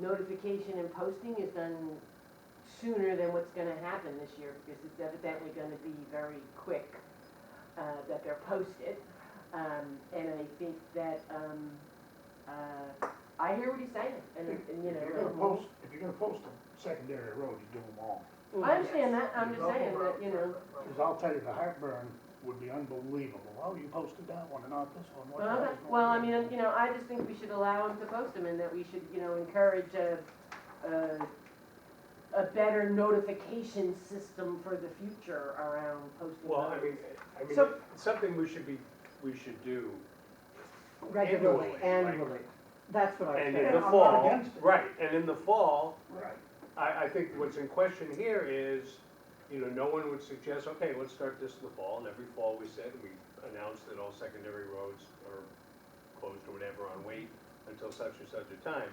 notification and posting is done sooner than what's gonna happen this year, because it's evidently gonna be very quick, uh, that they're posted. Um, and I think that, um, uh, I hear what he's saying, and, and, you If know. you're gonna um, post, if you're gonna post a secondary road, you do them all. I understand that, I'm just Local saying that, you know, Cause I'll tell you, the heartburn would be unbelievable. Oh, you posted that one and not this one. What the hell well, is okay. going well, I on? mean, you know, I just think we should allow them to post them and that we should, you know, encourage a, a, a better notification system for the future around posting. Well, I those. mean, I mean, So- it's something we should be, we should do. Regularly, like- annually, that's what I was And saying. in the I'm not fall, against it. right, and in the fall, Right. I, I think what's in question here is, you know, no one would suggest, okay, let's start this in the fall, and every fall we said, we announced that all secondary roads are closed or whatever on wait until such and such a time.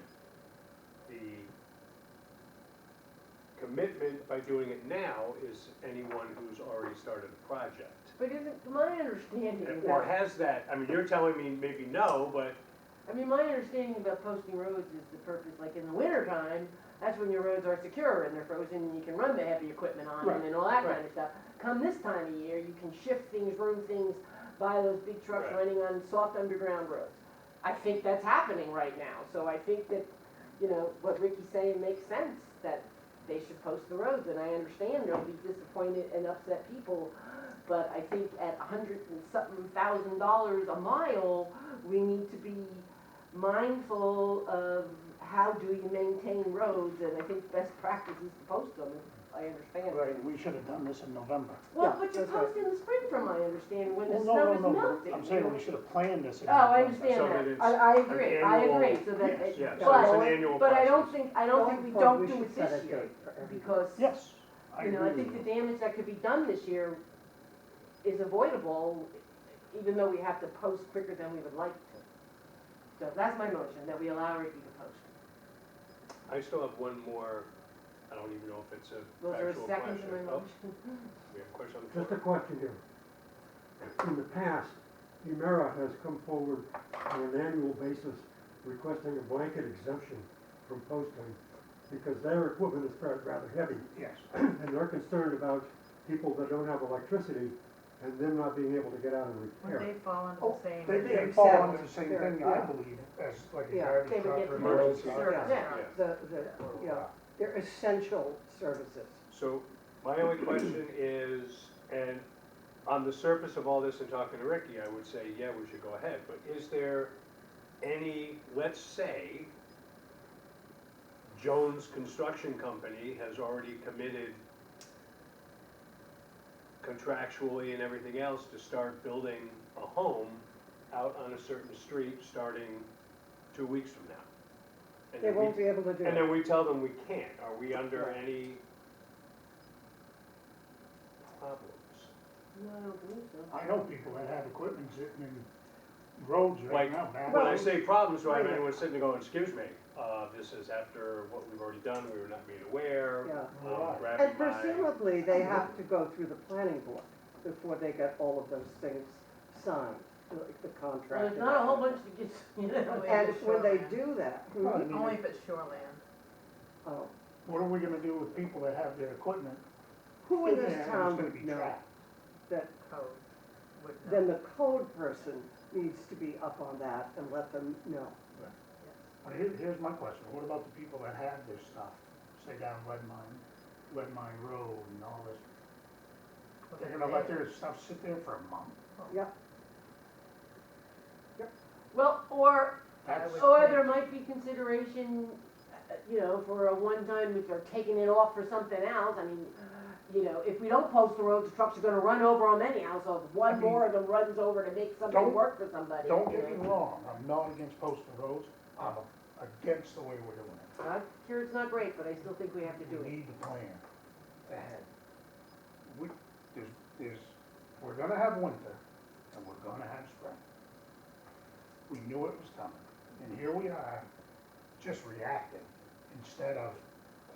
The commitment by doing it now is anyone who's already started a project. But isn't, my understanding And- Or about, has that, I mean, you're telling me maybe no, but I mean, my understanding about posting roads is the purpose, like in the winter time, that's when your roads are secure and they're frozen and you can run the heavy equipment on them Right, and all that kind right. of stuff. Come this time of year, you can shift things, room things, buy those big trucks Right. running on soft underground roads. I think that's happening right now, so I think that, you know, what Ricky's saying makes sense, that they should post the roads, and I understand there'll be disappointed and upset people, but I think at a hundred and something thousand dollars a mile, we need to be mindful of how do you maintain roads, and I think best practice is to post them, if I understand. Right, we should have done this in November. Well, Yeah, but you that's right. post in the spring from, I understand, when the Well, no, snow no, is no, but melting. I'm saying we should have planned this in Oh, I November. So understand that that, it's I, I agree, I annual- agree, so that, it- yeah, so it's an but, annual but I don't process. think, I don't think we Going forward, don't do should it set a this year, date for every- because, Yes, I you know, I agree think with the you. damage that could be done this year is avoidable, even though we have to post quicker than we would like to. So that's my motion, that we allow Ricky to post. I still have one more, I don't even know if it's a Was there a factual second question. to my Oh, motion? We have a question on the floor. Just a question here. In the past, Emera has come forward on an annual basis requesting a blanket exemption from posting because their equipment is fair- rather heavy Yes, and they're concerned about people that don't have electricity and them not being able to get out and Would repair. they fall into Oh, the same? they did. may fall Except- under the same thing, I yeah. believe, as like a Yeah, garbage they would truck get or emergency. emergency service. truck. Yeah. Yeah. The, the, you know, they're essential services. So my only question is, and on the surface of all this and talking to Ricky, I would say, yeah, we should go ahead, but is there any, let's say, Jones Construction Company has already committed contractually and everything else to start building a home out on a certain street starting two weeks from now. And They we won't be able to do and it. then we tell them we can't, are we under Right. any problems? No, I don't believe so. I know people that have equipment sitting in roads Like, right now, bad. When I say problems, do I have Right. anyone sitting there going, excuse me, uh, this is after what we've already done, we were not made aware, Yeah. um, Right. grabbing And my. presumably, they have to go through the planning board before they get all of those things signed, like the contract. Well, there's not a whole bunch that gets, you know, Only And if it's when they shoreline. do that, hmm, Well, I mean, Only if it's shoreland. oh, What are we gonna do with people that have their equipment? who in sitting this there and it's town gonna would be know? trapped? That code would know. then the code person needs to be up on that and let them know. But here, here's my question, what about the people that have this stuff, say down Red Mine, Red Mine Road and all this? Well, They're then gonna let they- their stuff sit there for a month? Well, or, That's, would- or there might be consideration, uh, you know, for a one-time, if they're taking it off for something else, I mean, you know, if we don't post the roads, the trucks are gonna run over them anyhow, so if I one mean, more of them runs over to make something don't- work for somebody. don't you get me know. wrong, I'm not against posting roads, I'm against the way we're doing it. I'm Sure, it's not great, but I still think we have to do We it. need the plan ahead. We, there's, there's, we're gonna have winter and we're gonna have spring. We knew it was coming, and here we are, just reacting instead of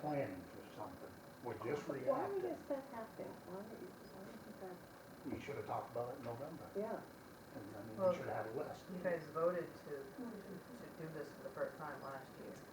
planning for something. We're just Why reacting. is that happening? Why, why is that, We should have talked about it in November, yeah. and I mean, Well, we should have had a list. You guys voted to, to do this for the first time last year.